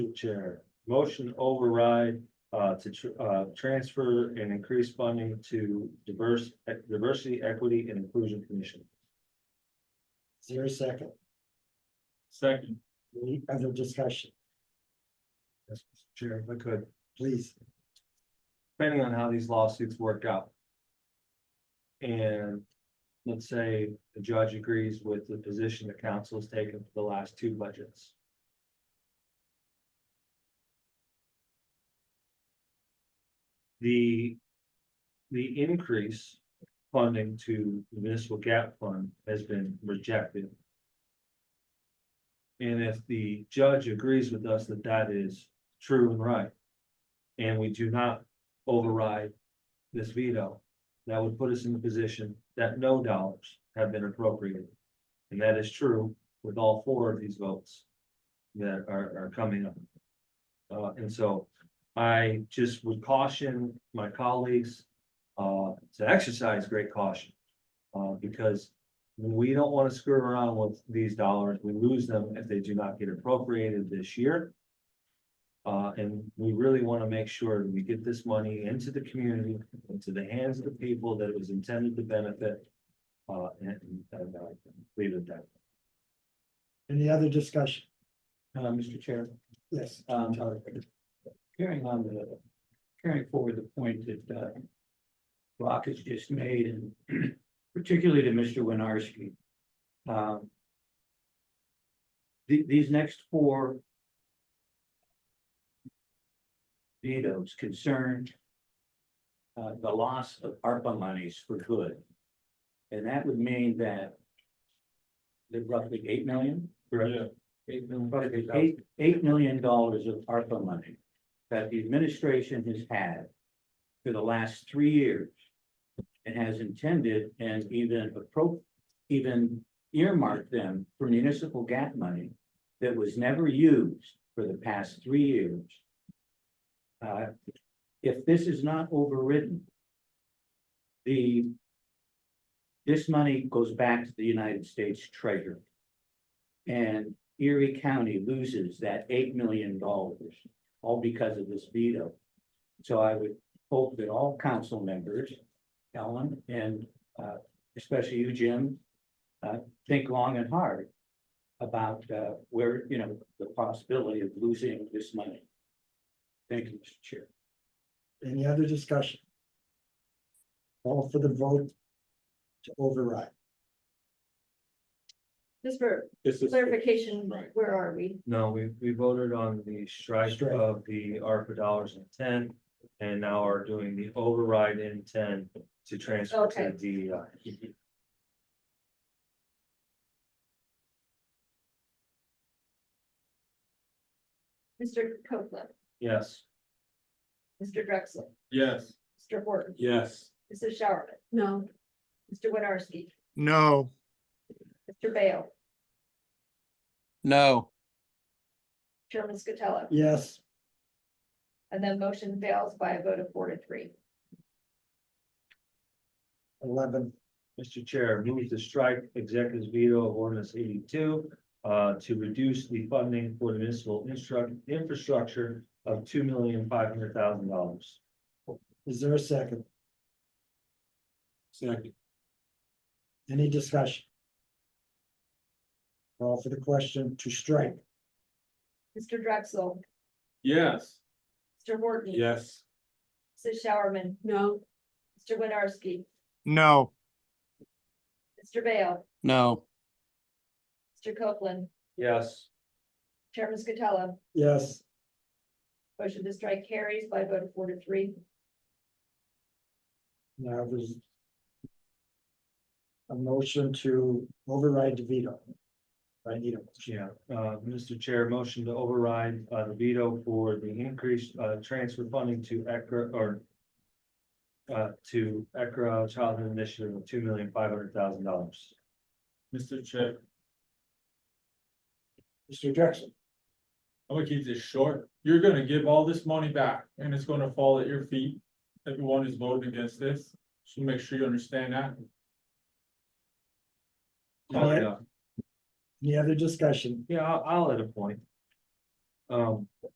Chair, motion override, uh, to, tr- uh, transfer and increase funding to diverse, e, diversity, equity and inclusion commission. Is there a second? Second. Any other discussion, Yes, Mr. Chair, if I could, please? depending on how these lawsuits work out. And let's say the judge agrees with the position the council has taken for the last two budgets. The, the increase funding to the municipal gap fund has been rejected. And if the judge agrees with us that that is true and right, and we do not override this veto. That would put us in the position that no dollars have been appropriated. And that is true with all four of these votes that are, are coming up. Uh, and so I just would caution my colleagues, uh, to exercise great caution. Uh, because we don't want to screw around with these dollars. We lose them if they do not get appropriated this year. Uh, and we really want to make sure that we get this money into the community, into the hands of the people that it was intended to benefit. Uh, and, and I leave it at Any other discussion? Uh, Mr. Chair, Yes. um, carrying on the, carrying forward the point that, uh, Rock has just made and particularly to Mr. Winarski. Um, the, these next four vetoes concern uh, the loss of ARPA monies for good. And that would mean that that roughly eight million? that. But it's eight, eight million dollars of ARPA money that the administration has had for the last three years. And has intended and even appro, even earmarked them for municipal gap money that was never used for the past three years. Uh, if this is not overridden, the this money goes back to the United States Treasury. And Erie County loses that eight million dollars, all because of this veto. So I would hope that all council members, Ellen, and uh, especially you, Jim, uh, think long and hard about uh, where, you know, the possibility of losing this money. Thank you, Mr. Chair. Any other discussion? All for the vote to override. Just for This clarification, right. where are we? No, we, we voted on the strike Strike. of the ARPA dollars in ten. And now are doing the override in ten to transfer to E Okay. DEI. Mr. Copeland, Yes. Mr. Drexel, Yes. Mr. Horton, Yes. Mrs. Showerman. No. Mr. Winarski, No. Mr. Bale, No. Chairman Scatella, Yes, and then motion fails by a vote of four to three. eleven. Mr. Chair, move to strike executives veto of ordinance eighty-two uh, to reduce the funding for the municipal instruct, infrastructure of two million five hundred thousand dollars. Is there a second? Second. Any discussion? All for the question to strike. Mr. Drexel, Yes. Mr. Horton. Yes. Mrs. Showerman. No. Mr. Winarski, No. Mr. Bale, No. Mr. Copeland, Yes. Chairman Scatella, Yes, motion to strike carries by a vote of four to three. now there's a motion to override the veto. I need a motion. Yeah, uh, Mr. Chair, motion to override, uh, the veto for the increased, uh, transfer funding to ECR or uh, to ECR Childhood Initiative of two million five hundred thousand dollars. Mr. Chair, Mr. Jackson. I'm gonna keep this short. You're gonna give all this money back and it's gonna fall at your feet. Everyone is voting against this, so make sure you understand that. All right. Any other discussion? Yeah, I'll, I'll add a point. Um,